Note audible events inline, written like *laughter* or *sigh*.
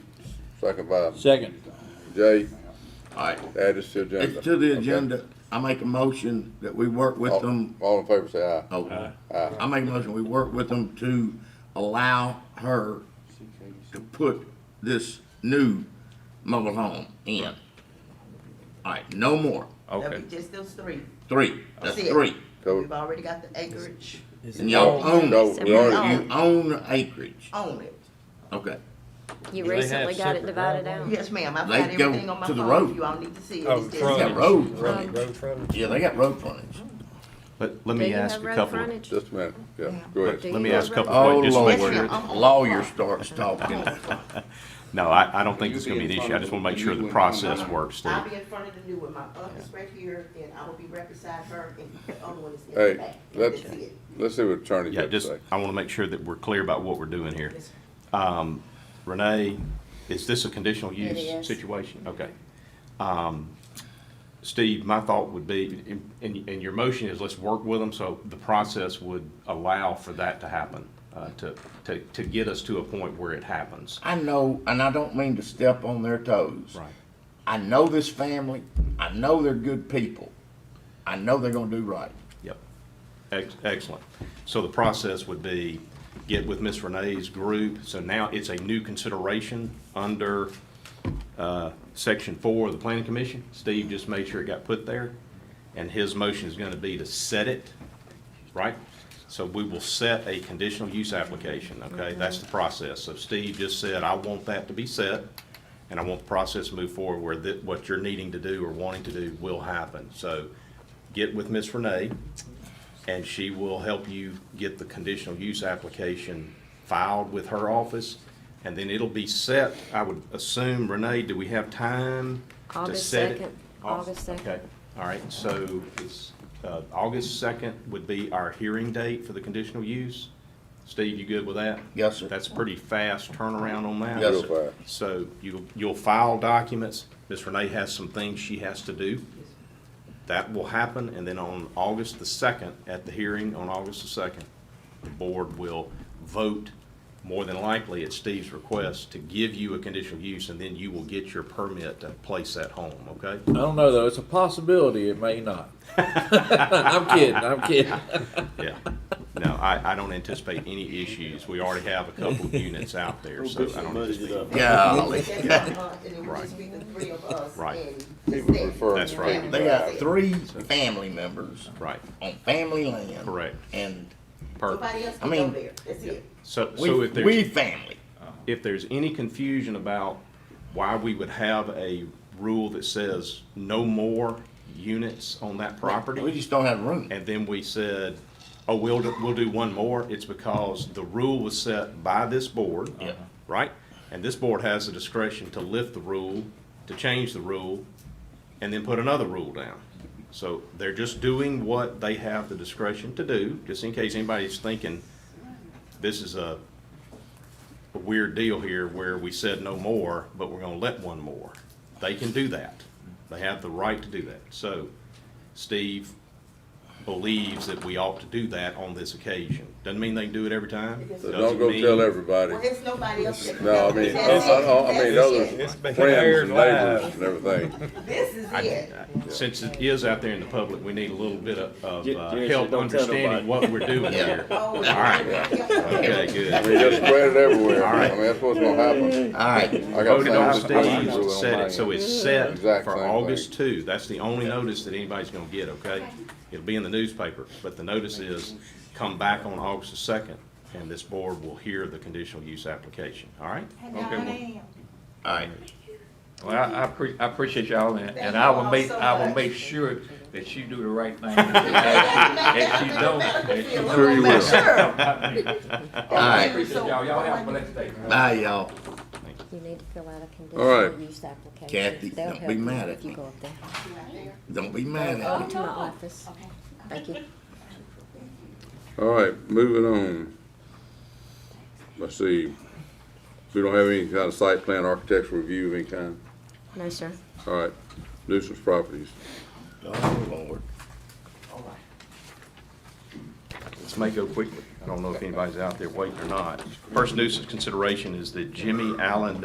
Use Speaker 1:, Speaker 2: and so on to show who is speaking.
Speaker 1: Second by
Speaker 2: Second.
Speaker 1: Jay,
Speaker 3: Alright,
Speaker 1: add this to agenda.
Speaker 3: it's to the
Speaker 1: Okay. Oh.
Speaker 3: agenda. Um, I make a motion that we work with
Speaker 1: All-
Speaker 3: them.
Speaker 1: All in favor say aye.
Speaker 3: Oh,
Speaker 4: Uh-huh.
Speaker 3: I make a motion, we work with them to allow her to put this new mobile home in. Alright, no more.
Speaker 5: That'll
Speaker 4: Okay.
Speaker 5: be just those three.
Speaker 3: Three. That's
Speaker 5: That's it.
Speaker 3: three.
Speaker 1: Cool.
Speaker 5: We've already got the acreage
Speaker 3: And y'all own,
Speaker 1: No, we already-
Speaker 3: you own the acreage.
Speaker 5: on it.
Speaker 3: Okay.
Speaker 6: You
Speaker 2: Do they have
Speaker 6: recently got it
Speaker 2: separate
Speaker 6: divided out.
Speaker 2: roadways?
Speaker 5: Yes, ma'am, I've
Speaker 3: They
Speaker 5: got
Speaker 3: go
Speaker 5: everything on my
Speaker 3: to the
Speaker 5: phone,
Speaker 3: road.
Speaker 5: you all need to see it.
Speaker 2: Oh,
Speaker 5: It's
Speaker 2: front.
Speaker 3: They got
Speaker 5: just-
Speaker 3: road
Speaker 6: Front.
Speaker 3: frontage.
Speaker 2: Road frontage.
Speaker 3: Yeah, they got road frontage.
Speaker 4: Let, let
Speaker 6: Do
Speaker 4: me
Speaker 6: you
Speaker 4: ask
Speaker 6: have
Speaker 4: a
Speaker 6: road
Speaker 4: couple, of-
Speaker 6: frontage?
Speaker 1: Just a minute, yeah, go
Speaker 6: Do
Speaker 1: ahead.
Speaker 4: let me
Speaker 6: you
Speaker 4: ask a
Speaker 6: have
Speaker 4: couple
Speaker 3: Oh,
Speaker 4: of, just to make
Speaker 3: Lord.
Speaker 4: sure.
Speaker 5: Yes, ma'am.
Speaker 3: Lawyer starts talking.
Speaker 5: *laughs*
Speaker 4: No, I, I don't think it's gonna be an issue. I just wanna make sure the process works,
Speaker 5: I'll
Speaker 4: Steve.
Speaker 5: be in front of the new one, my office right here, and I will be right beside her, and the other one is in the
Speaker 1: Hey,
Speaker 5: back.
Speaker 1: let's,
Speaker 5: That's it.
Speaker 1: let's see what attorney
Speaker 4: Yeah,
Speaker 1: got to
Speaker 4: just,
Speaker 1: say.
Speaker 4: I wanna make sure that we're clear about what we're doing here.
Speaker 5: Yes,
Speaker 4: Renee, is this a conditional use
Speaker 6: is.
Speaker 4: situation? Okay. Um, Steve, my thought would be, and, and your motion is let's work with them, so the process would allow for that to happen, uh, to, to, to get us to a point where it happens.
Speaker 3: I know, and I don't mean to step on their toes.
Speaker 4: Right.
Speaker 3: I know this family. I know they're good people. I know they're gonna do right.
Speaker 4: Yep. Ex- Excellent. So the process would be get with Miss Renee's group. So now it's a new consideration under uh, Section 4 of the Planning Commission. Steve just made sure it got put there. And his motion is going to be to set it, right? So we will set a conditional use application, okay? That's the process. So Steve just said, I want that to be set, and I want the process to move forward where that, what you're needing to do or wanting to do will happen. So get with Miss Renee, and she will help you get the conditional use application filed with her office, and then it'll be set, I would assume, Renee, do we have time to
Speaker 6: August
Speaker 4: set it?
Speaker 6: 2nd,
Speaker 4: Au-
Speaker 6: August 2nd.
Speaker 4: Okay, all right, so it's, uh, August second would be our hearing date for the conditional use. Steve, you good with that?
Speaker 3: Yes, sir.
Speaker 4: That's a pretty fast turnaround on that.
Speaker 3: Yes,
Speaker 1: Real fast.
Speaker 4: So you, you'll file documents, Ms. Renee has some things she has to do. That will happen, and then on August the second, at the hearing on August the second, the board will vote, more than likely at Steve's request, to give you a conditional use, and then you will get your permit to place that home, okay?
Speaker 2: I don't know though. It's a possibility. It may not. *laughs* I'm kidding. I'm kidding.
Speaker 4: Yeah. No, I, I don't anticipate any issues. We already have a couple of units out there, so I don't
Speaker 3: *laughs*
Speaker 4: anticipate.
Speaker 3: Golly.
Speaker 5: That's my aunt, And it would just be the three of us.
Speaker 4: Right.
Speaker 5: and
Speaker 1: He
Speaker 5: just
Speaker 1: was
Speaker 5: that.
Speaker 1: referring
Speaker 4: That's
Speaker 1: to
Speaker 4: right.
Speaker 5: Family.
Speaker 3: They got three family members
Speaker 4: Right,
Speaker 3: on family land.
Speaker 4: Correct.
Speaker 3: And
Speaker 4: perfect.
Speaker 5: Nobody else
Speaker 3: I
Speaker 5: can go
Speaker 3: mean-
Speaker 5: there, that's it.
Speaker 4: So, so
Speaker 3: we,
Speaker 4: if there's.
Speaker 3: we family.
Speaker 4: if there's any confusion about why we would have a rule that says no more units on that
Speaker 3: We
Speaker 4: property,
Speaker 3: just don't have room.
Speaker 4: and then we said, oh, we'll, do- we'll do one more, it's because the rule was set by this board,
Speaker 3: Yeah.
Speaker 4: right? And this board has the discretion to lift the rule, to change the rule, and then put another rule down. So they're just doing what they have the discretion to do, just in case anybody's thinking, this is a a weird deal here where we said no more, but we're gonna let one more. They can do that. They have the right to do that. So Steve believes that we ought to do that on this occasion. Doesn't mean they can do it every time.
Speaker 1: So
Speaker 4: Doesn't
Speaker 1: don't go
Speaker 4: mean-
Speaker 1: tell everybody.
Speaker 5: Well, there's nobody else that can
Speaker 1: No, I
Speaker 5: go
Speaker 1: mean,
Speaker 5: there.
Speaker 1: I, I, I mean,
Speaker 5: That's it.
Speaker 1: others,
Speaker 2: It's been
Speaker 1: friends,
Speaker 2: aired
Speaker 1: and
Speaker 2: live.
Speaker 1: neighbors, and everything.
Speaker 5: This is it.
Speaker 4: Since it is out there in the public, we need a little bit of, of
Speaker 7: Ju-
Speaker 4: uh,
Speaker 7: Jerry said
Speaker 4: help
Speaker 7: don't tell
Speaker 4: understanding
Speaker 7: nobody.
Speaker 4: what we're doing
Speaker 3: Yeah.
Speaker 4: here.
Speaker 5: Oh,
Speaker 4: All right,
Speaker 5: yeah.
Speaker 4: okay,
Speaker 1: I
Speaker 4: good.
Speaker 1: mean, just spread it everywhere.
Speaker 4: All
Speaker 1: I
Speaker 4: right.
Speaker 1: mean, that's what's gonna happen.
Speaker 3: All right.
Speaker 1: I got
Speaker 4: Voted on
Speaker 1: the same-
Speaker 4: Steve, set it, so it's set
Speaker 1: Exact
Speaker 4: for
Speaker 1: same
Speaker 4: August two. That's the only notice that anybody's gonna get, okay? It'll be in the newspaper, but the notice is, come back on August the second, and this board will hear the conditional use application, all right?
Speaker 5: Okay.
Speaker 3: All right.
Speaker 7: Well, I, I appre- I appreciate y'all, and, and I will make, I will make sure that you do the right thing. If you don't, if you don't.
Speaker 3: Very well.
Speaker 5: All
Speaker 3: right.
Speaker 7: Appreciate y'all, y'all have a blessed day.
Speaker 3: Bye, y'all.
Speaker 6: You need to fill out a
Speaker 1: All
Speaker 6: conditional
Speaker 1: right.
Speaker 6: use application.
Speaker 3: Kathy,
Speaker 6: They'll
Speaker 3: don't be
Speaker 6: help you
Speaker 3: mad
Speaker 6: if
Speaker 3: at
Speaker 6: you
Speaker 3: me.
Speaker 6: go up there.
Speaker 3: Don't be mad at
Speaker 6: Come
Speaker 3: me.
Speaker 6: to my office. Thank you.
Speaker 1: All right, moving on. Let's see. We don't have any kind of site plan, architectural review of any kind.
Speaker 6: No, sir.
Speaker 1: All right, nuisance properties.
Speaker 3: Oh, Lord. Oh,
Speaker 4: This may go quickly. I don't know if anybody's out there waiting or not. First nuisance consideration is the Jimmy Allen